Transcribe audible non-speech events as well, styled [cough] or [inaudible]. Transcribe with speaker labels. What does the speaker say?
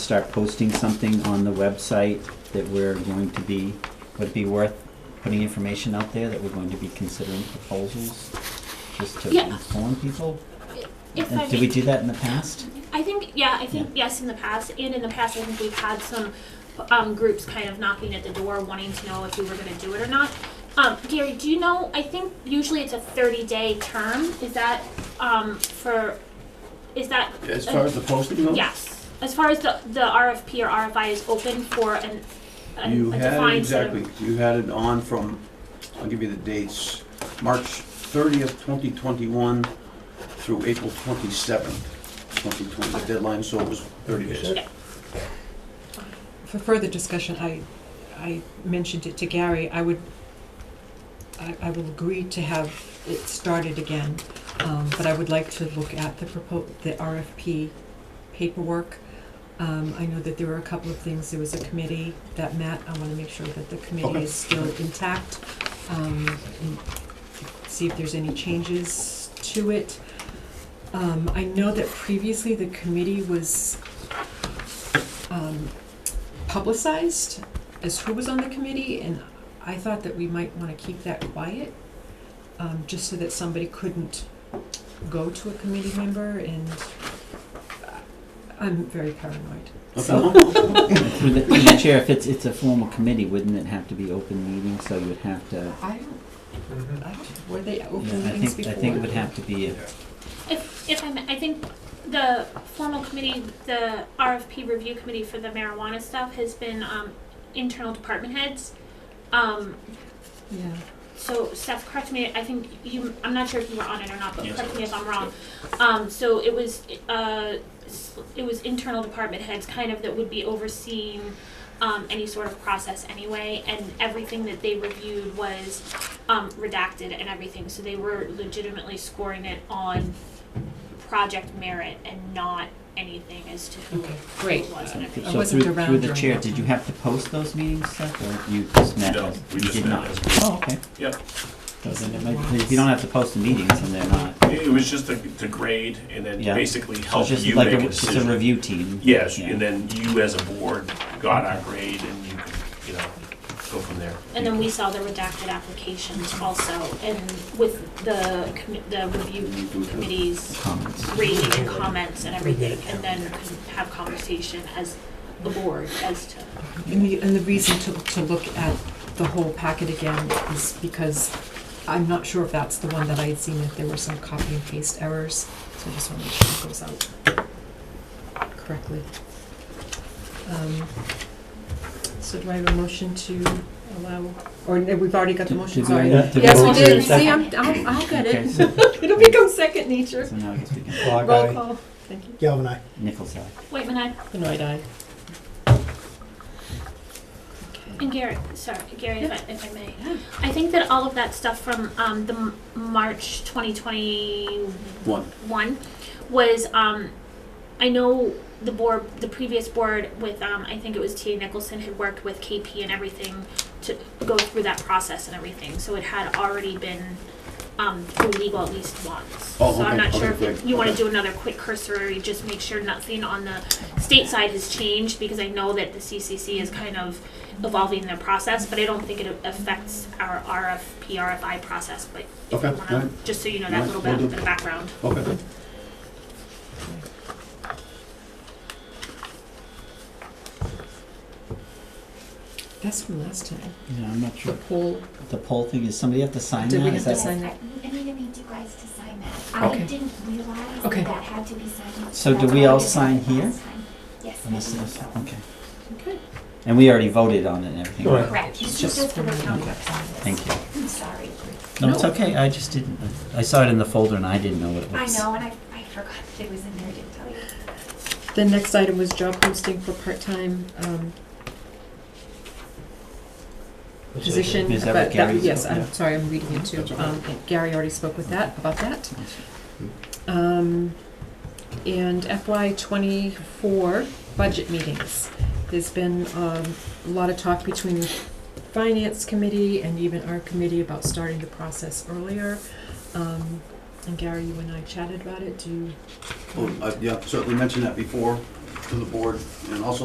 Speaker 1: start posting something on the website that we're going to be, would it be worth putting information out there that we're going to be considering proposals? Just to
Speaker 2: Yeah.
Speaker 1: inform people?
Speaker 2: If
Speaker 1: Uh,
Speaker 2: I
Speaker 1: Did
Speaker 2: may-
Speaker 1: we do that in the past?
Speaker 2: I think, yeah, I think, yes, in the past, and in the past, I think we've had some, um, groups kind of knocking at the door wanting to know if we were gonna do it or not. Um, Gary, do you know, I think usually it's a thirty-day term, is that, um, for, is that?
Speaker 3: As far as the posting goes?
Speaker 2: Yes, as far as the, the RFP or RFI is open for an, a a
Speaker 3: You had,
Speaker 2: defined set of.
Speaker 3: exactly, you had it on from, I'll give you the dates, March thirtieth, twenty twenty-one through April twenty-seventh, twenty twenty, the deadline, so it was thirty days.
Speaker 4: For further discussion, I, I mentioned it to Gary, I would, I, I will agree to have it started again, um, but I would like to look at the propo, the RFP paperwork. Um, I know that there were a couple of things, there was a committee that met, I wanna make sure that the committee
Speaker 3: Okay.
Speaker 4: is still intact. Um, and see if there's any changes to it. Um, I know that previously the committee was, um, publicized as who was on the committee, and I thought that we might want to keep that quiet, um, just so that somebody couldn't go to a committee member, and I'm very paranoid.
Speaker 3: Okay.
Speaker 1: Through the, through the chair, if it's, it's a formal committee, wouldn't it have to be open meeting, so you would have to,
Speaker 4: I don't, I don't, were they open
Speaker 1: yeah, I
Speaker 4: meetings
Speaker 1: think,
Speaker 4: before?
Speaker 1: I think it would have to be a
Speaker 2: If, if I may, I think the formal committee, the RFP review committee for the marijuana stuff has been, um, internal department heads. Um,
Speaker 4: Yeah,
Speaker 2: so Steph, correct me, I think you, I'm not sure if you were on it or not, but
Speaker 5: Yes,
Speaker 2: correct
Speaker 5: I
Speaker 2: me if I'm wrong. Um, so it was, uh, s- it was internal department heads kind of that would be overseeing, um, any sort of process anyway, and everything that they reviewed was, um, redacted and everything, so they were legitimately scoring it on project merit and not anything as to who
Speaker 4: Okay,
Speaker 2: who
Speaker 4: great.
Speaker 2: it was and everything.
Speaker 1: So
Speaker 4: wasn't
Speaker 1: through,
Speaker 4: around
Speaker 1: through the
Speaker 4: during
Speaker 1: chair,
Speaker 4: that
Speaker 1: did you
Speaker 4: time.
Speaker 1: have to post those meetings, Seth, or you just met?
Speaker 5: No, we
Speaker 1: You
Speaker 5: just
Speaker 1: did
Speaker 5: met
Speaker 1: not.
Speaker 5: as
Speaker 1: Oh, okay.
Speaker 5: Yep.
Speaker 1: So then it might- If you don't have to post the meetings, then they're not.
Speaker 5: It was just the, the grade and then
Speaker 1: Yeah.
Speaker 5: basically
Speaker 1: So
Speaker 5: help
Speaker 1: it's just
Speaker 5: you
Speaker 1: like,
Speaker 5: make
Speaker 1: a-
Speaker 5: a
Speaker 1: it's
Speaker 5: decision.
Speaker 1: a review team.
Speaker 5: Yes,
Speaker 1: Yeah.
Speaker 5: and then you as a board got our grade and you could, you know, go from there.
Speaker 2: And then we saw the redacted applications also, and with the, commi- the review committee's
Speaker 1: Comments.
Speaker 2: rating and comments and everything, and then could have conversation as the board as to.
Speaker 4: And the, and the reason to, to look at the whole packet again is because I'm not sure if that's the one that I had seen, if there were some copy and paste errors, so I just wanna make sure it goes out correctly. Um, So do I have a motion to allow, or no, we've already got the
Speaker 1: Did-
Speaker 4: motion,
Speaker 1: did we
Speaker 4: sorry.
Speaker 1: already- did we
Speaker 4: Yes, we
Speaker 1: already do
Speaker 4: did,
Speaker 1: the
Speaker 4: see,
Speaker 1: second?
Speaker 4: I'm, I'll, I'll get [laughs]
Speaker 1: Okay,
Speaker 4: it,
Speaker 1: so,
Speaker 4: it'll become second nature.
Speaker 1: so now I guess we can,
Speaker 6: Clog
Speaker 4: Roll
Speaker 6: eye,
Speaker 4: call, thank you.
Speaker 6: Galvin eye.
Speaker 1: Nichols eye.
Speaker 2: Wait, when I,
Speaker 4: Benoit aye. Okay.
Speaker 2: and Gary, sorry, Gary, if I, if I may, I think that all of that stuff from, um, the M- March twenty twenty
Speaker 3: One.
Speaker 2: one was um I know the board the previous board with um I think it was T A Nicholson had worked with KP and everything to go through that process and everything. So it had already been um through legal at least once.
Speaker 3: Oh,
Speaker 2: so I'm
Speaker 3: okay,
Speaker 2: not sure
Speaker 3: okay,
Speaker 2: if you-
Speaker 3: great,
Speaker 2: you wanna
Speaker 3: okay.
Speaker 2: do another quick cursory, just make sure nothing on the state side has changed because I know that the CCC is kind of evolving their process, but I don't think it affects our RFP, RFI process, but if
Speaker 3: Okay,
Speaker 2: you wanna,
Speaker 3: alright.
Speaker 2: just so you know
Speaker 3: Alright,
Speaker 2: that little
Speaker 3: will
Speaker 2: bit
Speaker 3: do.
Speaker 2: of the background.
Speaker 3: Okay.
Speaker 4: That's from last time,
Speaker 1: Yeah, I'm not
Speaker 4: the
Speaker 1: sure.
Speaker 4: poll,
Speaker 1: The poll thing, is somebody have to sign that?
Speaker 4: did we
Speaker 1: Is
Speaker 4: have to
Speaker 1: that-
Speaker 4: sign that?
Speaker 7: I I need to need you guys to sign that. I
Speaker 4: Okay.
Speaker 7: didn't realize
Speaker 4: Okay.
Speaker 7: that that had to be signed.
Speaker 1: So do
Speaker 7: That's
Speaker 1: we
Speaker 7: why I
Speaker 1: all
Speaker 7: didn't
Speaker 1: sign
Speaker 7: do it
Speaker 1: here?
Speaker 7: last time. Yes. I
Speaker 1: Unless
Speaker 7: think
Speaker 1: there's-
Speaker 7: so.
Speaker 1: okay.
Speaker 4: Okay.
Speaker 1: And we already voted on it and everything.
Speaker 6: Right.
Speaker 7: Correct. This
Speaker 1: Just-
Speaker 7: is just for the county office.
Speaker 1: Thank you.
Speaker 7: I'm sorry.
Speaker 1: No, it's okay, I just didn't, I saw it in the folder and I didn't know what it
Speaker 7: I
Speaker 1: was.
Speaker 7: know, and I, I forgot that it was in there, I didn't tell you.
Speaker 4: The next item was job posting for part-time, um, position,
Speaker 1: Is that
Speaker 4: but
Speaker 1: what
Speaker 4: that-
Speaker 1: Gary's
Speaker 4: yes,
Speaker 1: about?
Speaker 4: I'm
Speaker 1: Yeah.
Speaker 4: sorry, I'm reading it too.
Speaker 3: That's all right.
Speaker 4: Um, Gary already spoke with that, about that. Um, and FY twenty-four budget meetings. There's been, um, a lot of talk between the finance committee and even our committee about starting the process earlier. Um, and Gary, you and I chatted about it, do you?
Speaker 3: Uh, Well, I- yeah, certainly mentioned that before to the board, and also